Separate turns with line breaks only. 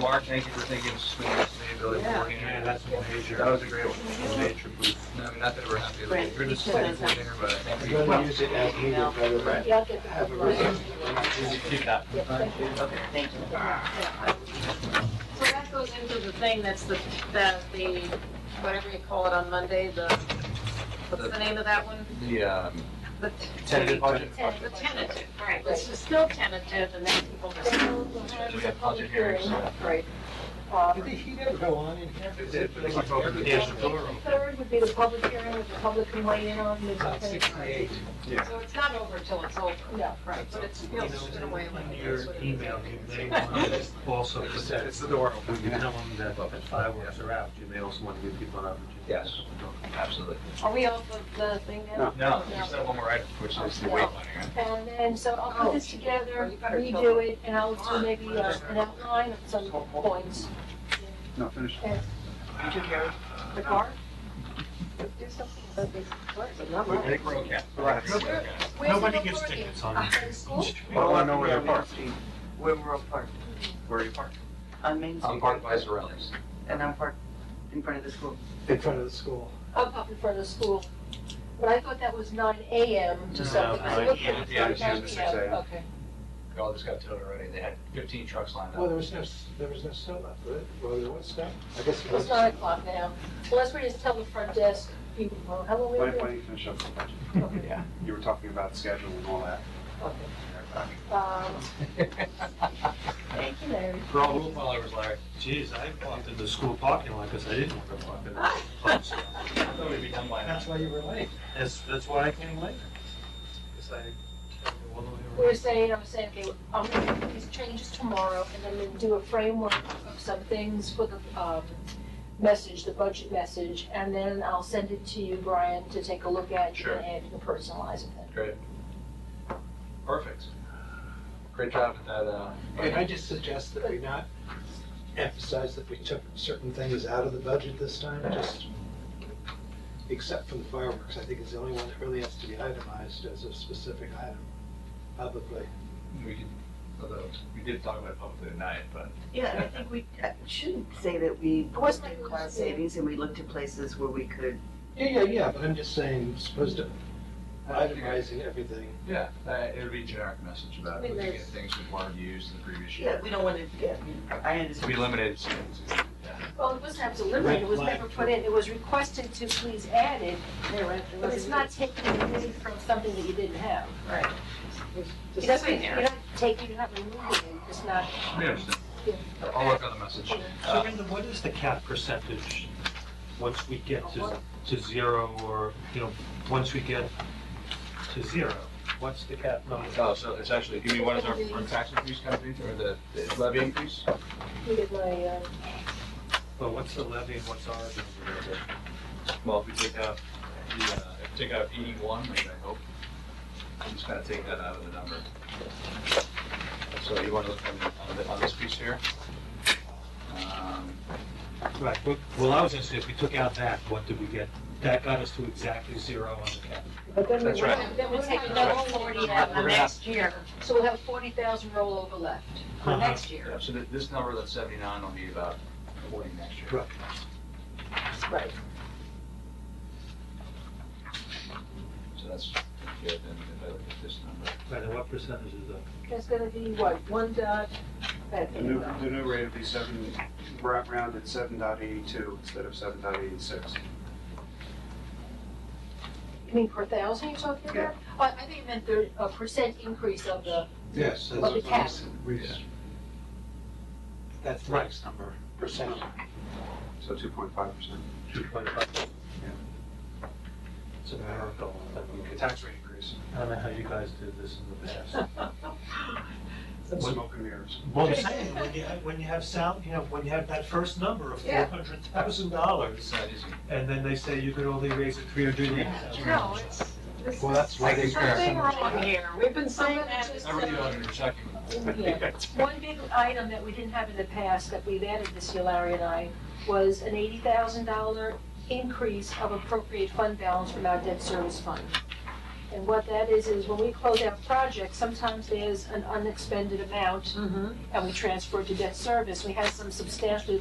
Mark, thank you for thinking of school sustainability
Yeah.
beforehand.
Yeah, that's a
That
major,
was a great one.
major boost.
No, not that we're happy,
Right,
like, you're the
because
city
that's-
coordinator, but I think
We're going to use it as needed rather than have a reason.
Keep that.
we. Okay.
Thank you.
So that goes into the thing that's the, that the, whatever you call it on Monday, the, what's the name of that one?
The, um,
The
Tentative budget.
the tentative, right, which is still tentative and then people are still.
we have budget hearings.
Right. Um,
Did the heat ever go on in here?
Yes, the floor.
Third would be the public hearing, which the public can weigh in on. this
About
kind of-
sixty-eight.
So it's not over till it's over.
No.
Right, but it's still in a way like.
Your email, you may want to also put that,
It's the door open.
when you tell them that the fireworks are out, you may also want to give people an opportunity.
Yes. Absolutely.
Are we off of the thing now?
No, there's still one more item, which is the weight limit.
And then, so I'll put this together, redo it, and I'll do maybe uh, an outline of some points.
No, finish.
And- The car? Do something about this car.
Big road cap.
Nobody gives tickets on
Uh, school?
I don't know where they're parked.
Where we're all parked,
Where are you parked?
on Main
I'm
Street,
parked by Sorelli's.
and I'm parked in front of the school.
In front of the school.
Up, up in front of the school. But I thought that was nine AM to something.
nine
AM, yeah, it's usually 6 AM.
Okay.
We all just got towed already. They had 15 trucks lined
Well,
up.
there was no, s- there was no snow left, was it? Well, there was snow. I guess it
It's
was.
nine o'clock now. Unless we just tell the front desk people, well, how long we
Why,
been?
why do you finish up the budget?
Okay.
Yeah.
You were talking about schedule and all that.
okay. Um, Thank you, Larry.
For all rule followers, Larry.
Geez, I walked in the school parking lot because I didn't want to walk in the clubs.
I thought we'd be done by now.
That's why you were late.
That's, that's why I came late. Because I traveled all the
We
way
were
around.
saying, I was saying, okay, I'm gonna make these changes tomorrow, and I'm gonna do a framework of some things for the, um, message, the budget message, and then I'll send it to you, Brian, to take a look at,
Sure.
and add, you can personalize it then.
Great. Perfect. Great job at that, uh.
Can I just suggest that we not emphasize that we
Uh,
took certain things out of the budget this time, just except for the fireworks, I think is the only one that really has to be itemized as a specific item publicly.
We did, although, we did talk about it publicly tonight, but.
Yeah, and I think we uh, shouldn't say that we
course
looked
not.
at cost savings and we looked at places where we could,
Yeah, yeah, yeah, but I'm just saying, as opposed to itemizing everything.
Yeah, uh, it would be a generic message about
I mean,
looking at
there's-
things we weren't used in the previous
yeah,
year.
we don't want to, yeah, I understand.
We limited.
Well, it wasn't absolutely limited, it was
Red
never put in, it was requested to please add it, but it's not taking away from something that you didn't have.
Right.
It
Just
doesn't,
in
you're
there.
not taking, you're not removing it, it's not,
We understand. I'll work on the message.
So Brenda, what is the cap percentage once we get to, to zero or, you know, once we get to zero? What's the cap number?
Oh, so it's actually, you mean what is our, our tax increase comes into, or the the levy increase?
you get my, uh,
Well, what's the levy and what's ours?
Well, if we take out, the, uh, if we take out eighty-one, which I hope, I'm just gonna take that out of the number. So you wanna look on, on the- on this piece here? Um,
Right, but- well, I was gonna say, if we took out that, what did we get? That got us to exactly zero on the cap.
but then we,
That's right.
then we take another forty out
We're
the
gonna have-
next year, so we'll have forty thousand rollover left for
Uh-huh.
next year.
yeah, so th- this number that's seventy-nine will be about forty next year.
Right.
Right.
So that's good, and if I look at this number.
Right, and what percentage is that?
That's gonna be what, one dot, that,
The new, the new rate would be seven, ra- rounded seven dot eighty-two instead of seven dot eighty-six.
you mean per thousand you're talking about? Oh, I think it meant the, a percent increase of the,
Yes.
Of the cap.
That's the next number, percent.
So two point five percent.
Two point five? It's a miracle. that we could-
Tax rate increase.
I don't know how you guys did this in the past.
Smoke and mirrors.
Well, I'm saying, when you have, when you have sound, you know, when you have that first number of four
Yeah.
hundred thousand dollars,
It's not easy.
and then they say you could only raise it three hundred and eighty thousand.
No, it's, this is
Well, that's why they.
something wrong here. We've been saying that.
I
uh,
really don't understand.
yeah. One big item that we didn't have in the past that we've added this year, Larry and I, was an eighty thousand dollar increase of appropriate fund balance from our debt service fund. And And what that is, is when we close out projects, sometimes there's an unexpended amount
Mm-hmm.
and we transfer it to debt service. We had some substantially